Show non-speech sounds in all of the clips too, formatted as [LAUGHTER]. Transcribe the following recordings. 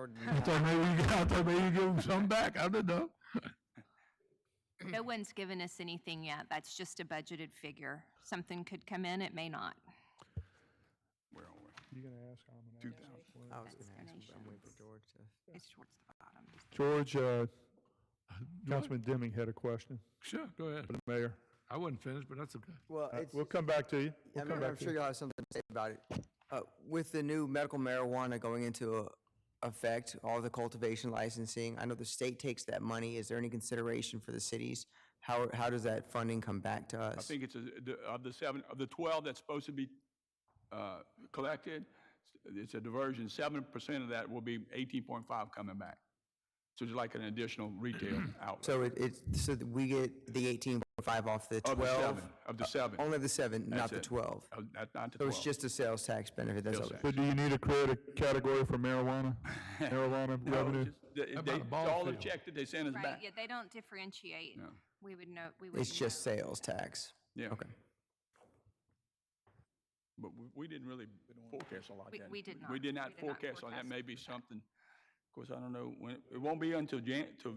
Jordan. I thought maybe you, I thought maybe you give them some back. I don't know. No one's given us anything yet. That's just a budgeted figure. Something could come in, it may not. Where are we? You gonna ask, I'm gonna Two ask. thousand. What- I was going to ask, but I'm waiting Donations. for George to. It's towards the bottom. George, uh, Councilman Deming had a question Sure, go ahead. for the mayor. I wasn't finished, but that's okay. Well, it's, Uh, We'll come back to you. I We'll come mean, I'm back to sure you. you'll have something to say about it. Uh, With the new medical marijuana going into uh, effect, all the cultivation licensing, I know the state takes that money. Is there any consideration for the cities? How, how does that funding come back to us? I think it's, a- the- of the seven, of the 12 that's supposed to be uh, collected, it's a diversion, 7% of that will be 18.5 coming back. So it's like an additional retail outlet So it, it's, so that we get the eighteen point five off the of the seven, twelve? of the seven. Only the seven, not That's the it. twelve? Uh, Not not the So 12. it's just a sales tax benefit, that's all? Sales tax. But do you need to create a category [LAUGHS] for marijuana? Marijuana No, revenue? just- they- How about they- a ball All the field? check that they sent us Right, yeah, back. they don't differentiate. No. We would know, we would. It's just sales tax? Yeah. Okay. But we we didn't really forecast a lot We- of that. we did We not. did We not did not forecast on that. forecast Maybe something, of course, I don't know, when it won't be until Jan, till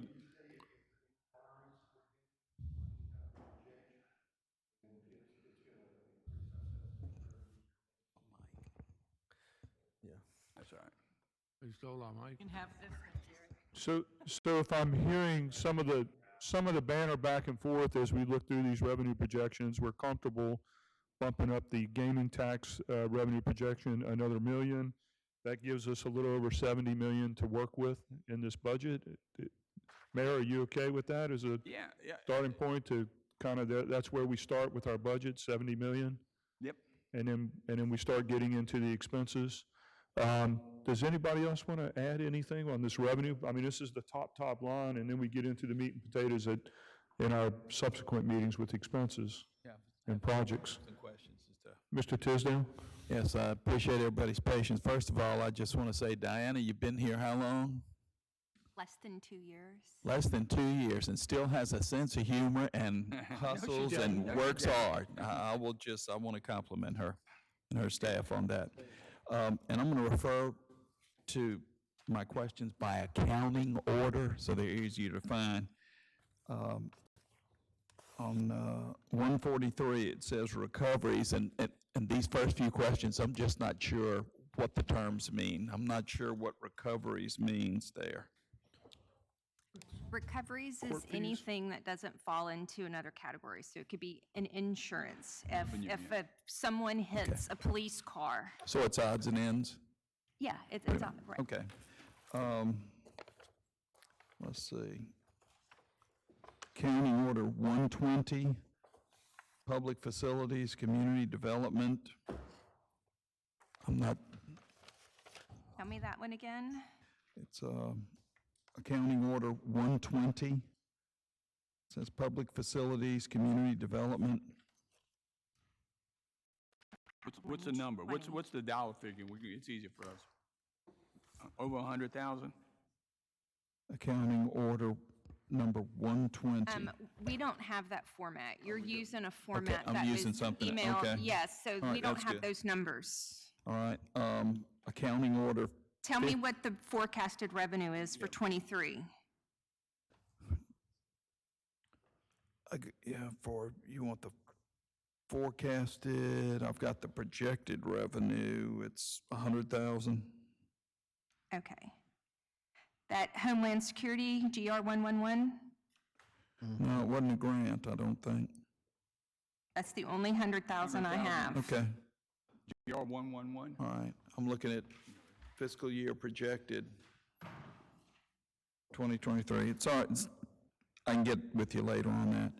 Yeah. That's all right. You stole our mic. can have this one, Jerry. So, so if I'm hearing some of the, some of the banner back and forth as we look through these revenue projections, we're comfortable bumping up the gaming tax uh, revenue projection another million. That gives us a little over 70 million to work with in this budget. Mayor, are you okay with that as a Yeah, yeah, starting point to kind of, that's where we start with our budget, 70 million? yep. and then, and then we start getting into the expenses. Um, Does anybody else want to add anything on this revenue? I mean, this is the top, top line, and then we get into the meat and potatoes at, in our subsequent meetings with expenses Yeah. and projects. Some questions and stuff. Mr. Tisdale? Yes, I appreciate everybody's patience. First of all, I just want to say, Diana, you've been here how long? Less than two years. Less than two years and still has a sense of humor and hustles and works hard. I, I will just, I want to compliment her and her staff on that. Um, and I'm going to refer to my questions by accounting order, so they're easier to find. Um, On uh, 143, it says recoveries, and, and- and these first few questions, I'm just not sure what the terms mean. I'm not sure what recoveries means there. Recoveries is anything that doesn't fall into another category. So it could be an insurance. If, if a- someone hits a police car. So it's odds and ends? Yeah, it's, it's, all- right. Okay. Um, Let's see. County Order 120, Public Facilities, Community Development. I'm not, Tell me that one again. it's um, Accounting Order 120. It Says Public Facilities, Community Development. What's, what's the number? What's, what's the dollar figure? We can, it's easier for us. Uh, Over a hundred thousand? Accounting Order Number 120. Um, we don't have that format. Oh, You're using a format I'm that using was something, okay. emailed. Yes, so All right, we don't that's have good. those numbers. All right, um, Accounting Order Tell me what the forecasted revenue is for '23. I g- Yeah, for, you want the forecasted, I've got the projected revenue, it's a hundred thousand. Okay. That Homeland Security, GR 111, No, it wasn't a grant, I don't think. that's the only 100,000 I have. Okay, GR one one one? all right, I'm looking at fiscal year projected, twenty twenty-three, it's all right, it's- I can get with you later on that.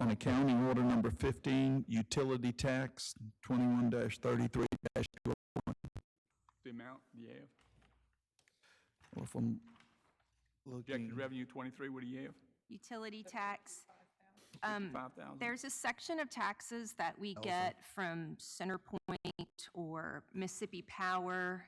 On accounting order number fifteen, utility tax, twenty-one dash thirty-three dash two The amount, yeah. oh, if I'm Projected looking, revenue twenty-three, what do you have? Utility tax, Um, Five thousand? there's a section of taxes that we get from CenterPoint or Mississippi Power.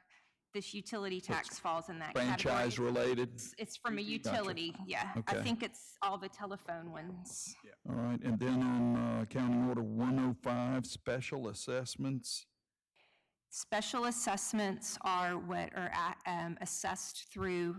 This utility tax falls in that category. franchise related. It's from a utility, yeah. I Okay. think it's all the telephone ones. All right, and oh then on uh, County Order 105, special assessments, Special assessments are what are a- um, assessed through